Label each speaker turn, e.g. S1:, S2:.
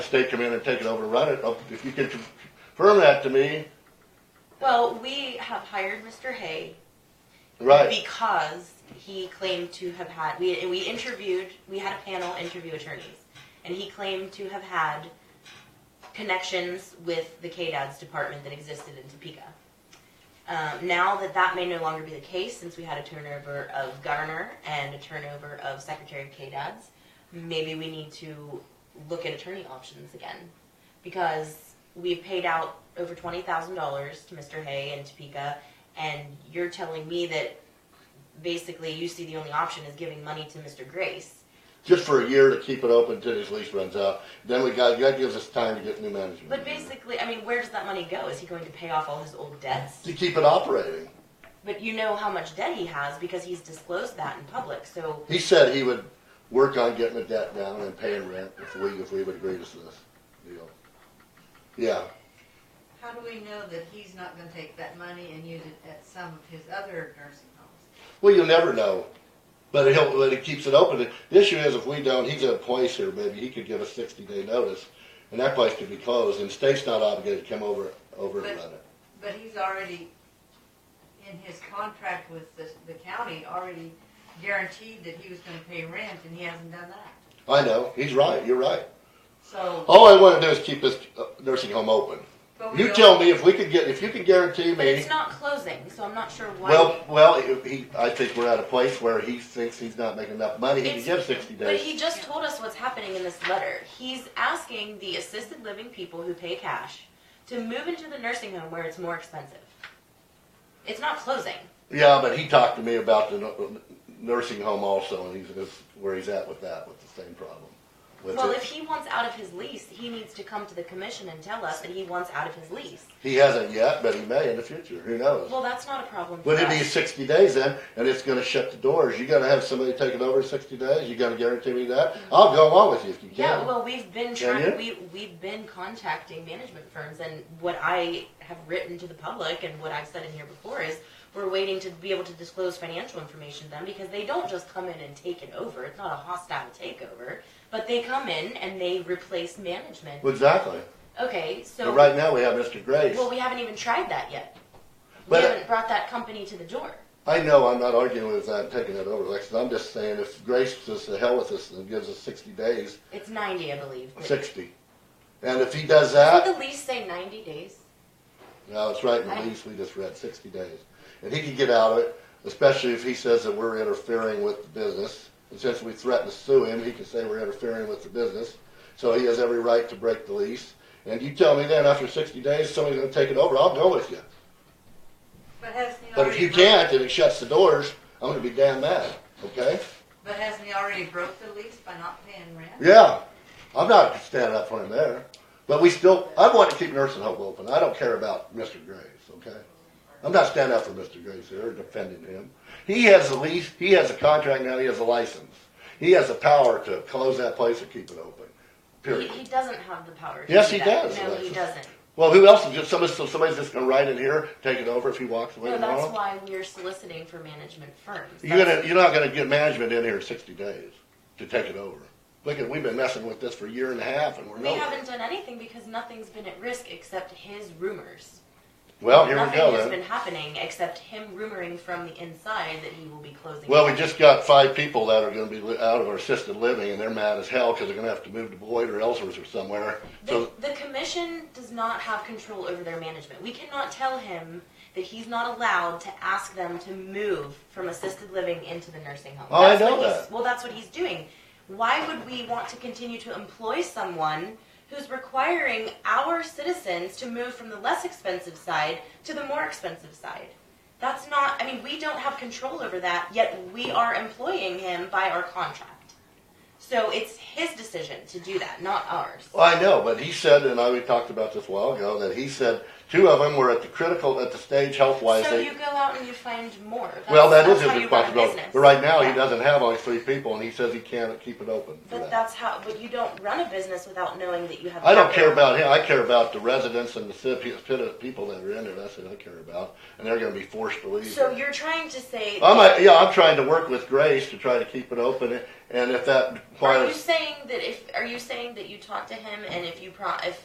S1: state come in and take it over and run it, if you can confirm that to me,
S2: Well, we have hired Mr. Hay
S1: right,
S2: because he claimed to have had we we interviewed we had a panel interview attorneys, and he claimed to have had connections with the KDAD's department that existed in Topeka. Um, now that that may no longer be the case, since we had a turnover of governor and a turnover of secretary of KDAD's, maybe we need to look at attorney options again, because we've paid out over twenty thousand dollars to Mr. Hay and Topeka, and you're telling me that basically you see the only option is giving money to Mr. Grace.
S1: just for a year to keep it open until his lease runs out. Then we got, that gives us time to get new management.
S2: But basically, I mean, where does that money go? Is he going to pay off all his old debts?
S1: To keep it operating.
S2: But you know how much debt he has because he's disclosed that in public. So
S1: He said he would work on getting the debt down and paying rent if we, if we would agree to this deal. Yeah,
S3: How do we know that he's not gonna take that money and use it at some of his other nursing homes?
S1: well, you'll never know, but he'll, but he keeps it open. The issue is if we don't, he's at a place here, maybe he could give a sixty day notice, and that place could be closed, and state's not obligated to come over, over and run it.
S3: But he's already, in his contract with the, the county, already guaranteed that he was gonna pay rent and he hasn't done that.
S1: I know, he's right, you're right.
S3: So.
S1: All I wanna do is keep this uh, nursing home open.
S3: but we
S1: You
S3: don't-
S1: tell me if we could get, if you can guarantee me,
S2: Oh, it's not closing. So I'm not sure why.
S1: well, well, if he, I think we're at a place where he thinks he's not making enough money, he can
S2: It's-
S1: give sixty days.
S2: But he just told us what's happening in this letter. He's asking the assisted living people who pay cash to move into the nursing home where it's more expensive. It's not closing.
S1: Yeah, but he talked to me about the nu- nursing home also, and he's, is where he's at with that, with the same problem. With
S2: Well,
S1: it.
S2: if he wants out of his lease, he needs to come to the commission and tell us that he wants out of his lease.
S1: He hasn't yet, but he may in the future, who knows?
S2: Well, that's not a problem for
S1: But it'd be
S2: us.
S1: sixty days then, and it's gonna shut the doors, you gotta have somebody take it over in sixty days, you gotta guarantee me that, I'll go along with you if you
S2: Mm-hmm. Yeah,
S1: can.
S2: well, we've been
S1: Can
S2: trying, we, we've been contacting management firms and what I have written to the public and what I've said in here before is we're waiting to be able to disclose financial information to them because they don't just come in and take it over. It's not a hostile takeover, but they come in and they replace management.
S1: Well, Exactly,
S2: Okay, so,
S1: but right now we have Mr. Grace,
S2: well, we haven't even tried that yet. We
S1: But-
S2: haven't brought that company to the door.
S1: I know I'm not arguing with that, taking it over, Alexis, I'm just saying if Grace says to hell with us and gives us sixty days,
S2: It's ninety, I believe. but-
S1: sixty. And if he does that.
S2: Doesn't the lease say ninety days?
S1: No, it's right in the lease we just read, sixty days. And he can get out of it, especially if he says that we're interfering with the business. And since we threaten to sue him, he can say we're interfering with the business. So he has every right to break the lease. And you tell me then, after sixty days, somebody's gonna take it over, I'll go with you.
S3: But hasn't he
S1: But if
S3: already
S1: you
S3: broke-
S1: can't, and it shuts the doors, I'm gonna be damn mad, okay?
S3: But hasn't he already broke the lease by not paying rent?
S1: Yeah, I'm not standing up for him there. But we still, I want to keep nursing home open. I don't care about Mr. Grace, okay? I'm not standing up for Mr. Grace here, or defending him. He has a lease, he has a contract now, he has a license. He has the power to close that place or keep it open,
S2: He,
S1: period.
S2: he doesn't have the power to do
S1: Yes, he
S2: that.
S1: does,
S2: No, he
S1: Alexis.
S2: doesn't.
S1: Well, who else, is just somebody, so somebody's just gonna ride in here, take it over if he walks away
S2: No, that's
S1: tomorrow?
S2: why we're soliciting for management firms.
S1: You're gonna, you're not gonna get management in here in sixty days to take it over. Look at, we've been messing with this for a year and a half and we're
S2: We
S1: nowhere.
S2: haven't done anything because nothing's been at risk except his rumors.
S1: Well, Oh, here we
S2: Nothing
S1: go
S2: has
S1: then.
S2: been happening except him rumoring from the inside that he will be closing.
S1: Well, we just got five people that are gonna be li- out of our assisted living, and they're mad as hell, cause they're gonna have to move to Boyd or Ellsworth or somewhere.
S2: The,
S1: So,
S2: the commission does not have control over their management. We cannot tell him that he's not allowed to ask them to move from assisted living into the nursing home.
S1: Oh, I
S2: That's what
S1: know
S2: he's-
S1: that.
S2: Well, that's what he's doing. Why would we want to continue to employ someone who's requiring our citizens to move from the less expensive side to the more expensive side? That's not, I mean, we don't have control over that, yet we are employing him by our contract. So it's his decision to do that, not ours.
S1: Well, I know, but he said, and I, we talked about this a while ago, that he said Two of them were at the critical, at the stage health-wise.
S2: So
S1: they-
S2: you go out and you find more. That's-
S1: Well, that
S2: that's
S1: is his
S2: how you run a
S1: responsibility.
S2: business.
S1: But right now, he
S2: Yeah.
S1: doesn't have only three people, and he says he can't keep it open for
S2: But
S1: that.
S2: that's how, but you don't run a business without knowing that you have.
S1: I don't
S2: capital.
S1: care about him. I care about the residents and the city, the people that are in there. That's what I care about, and they're gonna be forced to leave.
S2: So you're trying to say.
S1: I'm, uh, yeah, I'm trying to work with Grace to try to keep it open, and if that
S2: Are you
S1: requires,
S2: saying that if, are you saying that you talked to him and if you pro, if